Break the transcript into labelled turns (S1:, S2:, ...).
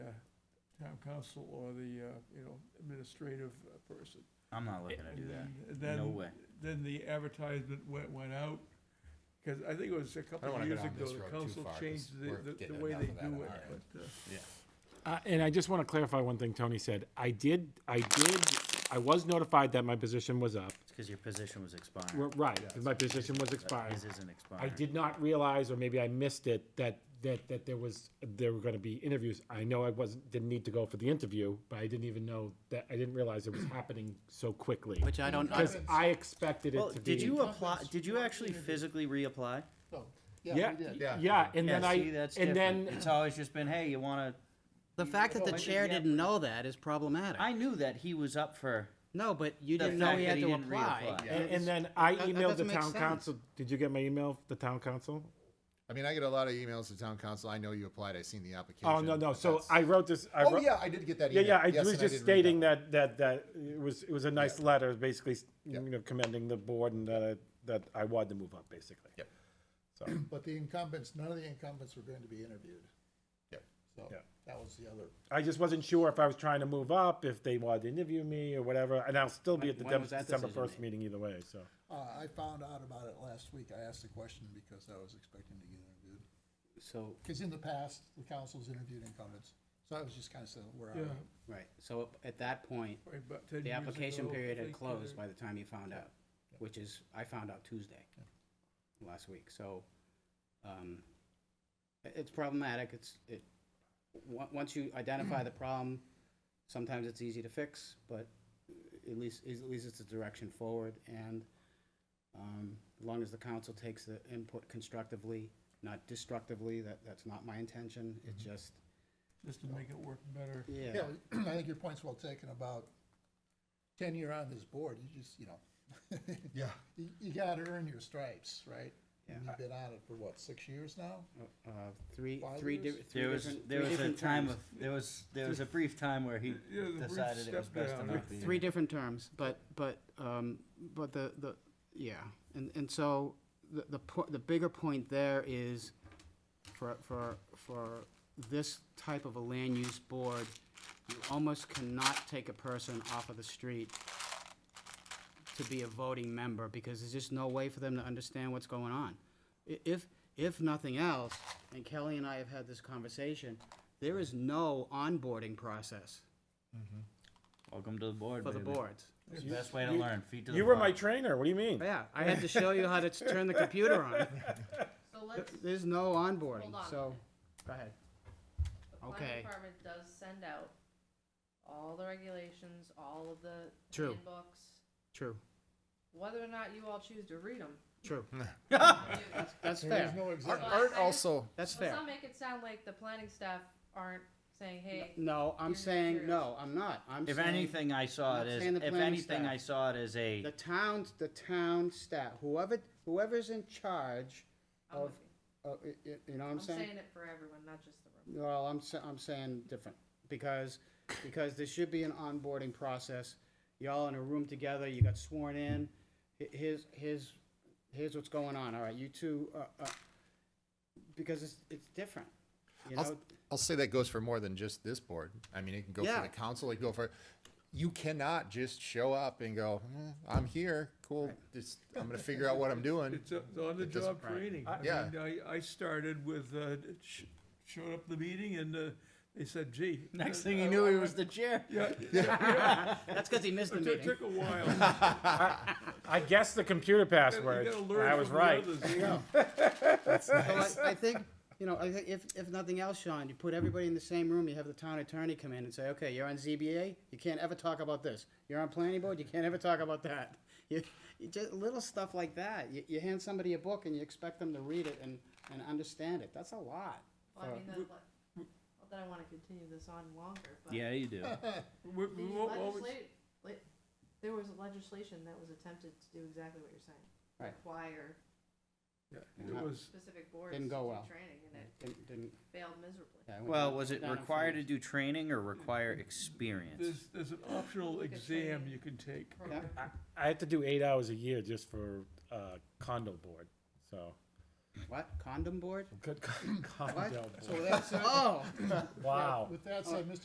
S1: town council or the, uh, you know, administrative uh, person.
S2: I'm not looking to do that.
S1: And then-
S2: No way.
S1: Then the advertisement went, went out, because I think it was a
S3: I don't
S1: couple
S3: wanna
S1: of
S3: go
S1: years
S3: down
S1: ago,
S3: this
S1: the
S3: road too
S1: council
S3: far 'cause
S1: changed
S3: we're
S1: the, the- the
S3: getting
S1: way
S3: enough
S1: they
S3: of that
S1: do
S3: on
S1: it,
S3: our end.
S1: but, uh,
S3: Yeah.
S4: Uh, and I just want to clarify one thing Tony said. I did, I did, I was notified that my position was up.
S2: It's because your position was
S4: We're-
S2: expiring.
S4: Right, 'cause my position was
S2: But
S4: expired.
S2: His isn't expiring.
S4: I did not realize, or maybe I missed it, that, that, that there was, there were gonna be interviews. I know I wasn't, didn't need to go for the interview, but I didn't even know that, I didn't realize it was happening so quickly.
S5: Which I don't, I,
S4: Because I expected
S2: Well,
S4: it to be.
S2: did you apply,
S6: Nothing's-
S2: did you actually physically reapply?
S6: Oh,
S4: Yeah,
S6: yeah, we did.
S3: Yeah.
S4: yeah, and then
S2: Yeah,
S4: I,
S2: see, that's
S4: and
S2: different.
S4: then,
S2: It's always just been, hey, you wanna,
S5: the fact that the
S2: Why did
S5: chair
S2: he have-
S5: didn't know that is problematic.
S2: I knew that he was up for,
S5: No, but you
S2: The
S5: didn't know
S2: fact
S5: he
S2: that
S5: had
S2: he
S5: to
S2: didn't
S5: apply.
S2: reapply.
S4: and and then I
S5: that
S4: emailed the
S5: doesn't make
S4: town
S5: sense.
S4: council. Did you get my email, the town council?
S3: I mean, I get a lot of emails to town council. I know you applied. I seen the application.
S4: Oh, no, no,
S3: but
S4: so
S3: that's-
S4: I wrote this, I
S3: Oh,
S4: wrote.
S3: yeah, I did get that
S4: Yeah,
S3: email.
S4: yeah, I
S3: Yes,
S4: was
S3: and
S4: just
S3: did read
S4: stating that, that, that, it was, it was a nice letter, basically, you
S3: Yep.
S4: know, commending the board and that, I- that I wanted to move up, basically.
S3: Yep.
S4: So,
S6: But the incumbents, none of the incumbents were going to be interviewed.
S3: Yep.
S6: So
S4: Yeah.
S6: that was the other.
S4: I just wasn't sure if I was trying to move up, if they wanted to interview me or whatever, and I'll still be at the
S2: When- when was that
S4: December
S2: decision
S4: first
S2: made?
S4: meeting either way, so.
S6: Uh, I found out about it last week. I asked the question because I was expecting to get interviewed.
S2: so,
S6: Because in the past, the council's interviewed incumbents. So I was just kind of saying, where are
S1: yeah,
S6: we?
S5: Right, so at that point,
S1: probably about 10
S5: the
S1: years
S5: application
S1: ago,
S5: period
S1: I
S5: had
S1: think, uh,
S5: closed by the time you found out, which is, I found out Tuesday last week, so, um, i- it's problematic, it's, it, on- once you identify the problem, sometimes it's easy to fix, but at least, at least it's a direction forward, and, um, as long as the council takes the input constructively, not destructively, that, that's not my intention, it's
S1: Mm-hmm.
S5: just,
S1: Just to make it work better.
S5: yeah,
S6: Yeah, I think your point's well taken about tenure on this board, you just, you know.
S3: Yeah.
S6: You, you gotta earn your stripes, right? And
S5: Yeah.
S6: You've been on it for what, six years now?
S5: uh, three,
S6: Five
S5: three,
S6: years?
S5: di- three
S2: there was,
S5: different,
S2: there
S5: three
S2: was a
S5: different
S2: time
S5: terms.
S2: of, there was, there was a brief time where he
S1: Yeah, the brief
S2: decided it was
S1: step
S2: best to
S1: down.
S2: not be.
S5: three different terms, but, but, um, but the, the, yeah. And, and so the, the, po- the bigger point there is for, for, for this type of a land use board, you almost cannot take a person off of the street to be a voting member because there's just no way for them to understand what's going on. I- If, if nothing else, and Kelly and I have had this conversation, there is no onboarding process
S2: Welcome to the board,
S5: for the
S2: baby.
S5: boards.
S2: It's the best way to
S4: you-
S2: learn, feet to the
S4: You were
S2: fire.
S4: my trainer, what do you mean?
S5: Yeah, I had to show you how to turn the computer on.
S7: So let's,
S5: There's no onboarding,
S7: Hold on a
S5: so, go ahead.
S7: the
S5: Okay.
S7: planning department does send out all the regulations, all of the
S5: True.
S7: handbooks.
S5: True,
S7: Whether or not you all choose to read them.
S5: true. That's, that's fair,
S6: No
S3: Art,
S6: exam.
S3: Art also,
S5: that's
S7: Let's
S5: fair.
S7: not make it sound like the planning staff aren't saying, hey,
S5: No, I'm
S7: Your
S5: saying, no,
S7: materials.
S5: I'm not, I'm
S2: If
S5: saying.
S2: anything, I saw
S5: I'm
S2: it as,
S5: saying the
S2: if
S5: planning
S2: anything,
S5: staff.
S2: I saw it as a,
S5: The town's, the town staff, whoever, whoever's in charge
S7: I'm
S5: of,
S7: with you.
S5: of, y- y- you know what
S7: I'm
S5: I'm saying?
S7: saying it for everyone, not just the room.
S5: Well, I'm, sa- I'm saying different, because, because there should be an onboarding process. Y'all in a room together, you got sworn in, H- here's, here's, here's what's going on, all right, you two, uh, uh, because it's, it's different, you
S3: I'll,
S5: know?
S3: I'll say that goes for more than just this board. I mean, it can go
S5: Yeah.
S3: for the council, it can go for, you cannot just show up and go, "Eh, I'm here, cool, just, I'm gonna figure out what I'm doing.
S1: It's a- it's on-the-job training. I
S3: Yeah.
S1: mean, I, I started with, uh, sh- showed up the meeting and uh, they said, gee.
S2: next
S1: uh,
S2: thing
S1: I-
S2: you knew,
S1: I
S2: he
S1: went-
S2: was the chair.
S1: Yeah,
S5: That's because he missed the
S1: it took-
S5: meeting.
S1: took a while.
S4: I guessed the computer password,
S1: You gotta
S4: and
S1: learn
S4: I was
S1: from the
S4: right.
S1: others, you know.
S5: So I, I think, you know, I think if, if nothing else, Sean, you put everybody in the same room, you have the town attorney come in and say, okay, you're on ZBA, you can't ever talk about this. You're on planning board, you can't ever talk about that. You, you just, little stuff like that. You, you hand somebody a book and you expect them to read it and, and understand it. That's a lot.
S7: Well, I
S5: Uh,
S7: mean, that's what- not that I wanna continue this on longer, but.
S2: Yeah, you do.
S1: We-
S7: The
S1: we won't always-
S7: legislate, le- there was legislation that was attempted to do exactly what you're saying.
S5: Right.
S7: Require
S1: Yeah, It was,
S7: specific boards to
S5: Didn't
S7: do
S5: go well.
S7: training and it
S5: Didn't, didn't,
S7: failed miserably.
S5: yeah, I went
S2: Well,
S5: down-
S2: was it
S5: down in
S2: required to
S5: flames.
S2: do training or require experience?
S1: there's, there's an optional exam you can take.
S7: Program.
S4: I had to do eight hours a year just for, uh, condo board, so.
S5: What, condom board?
S4: Good condo
S5: What?
S4: board,
S6: So with that said,
S5: Oh!
S4: wow.
S6: with that said, Mr.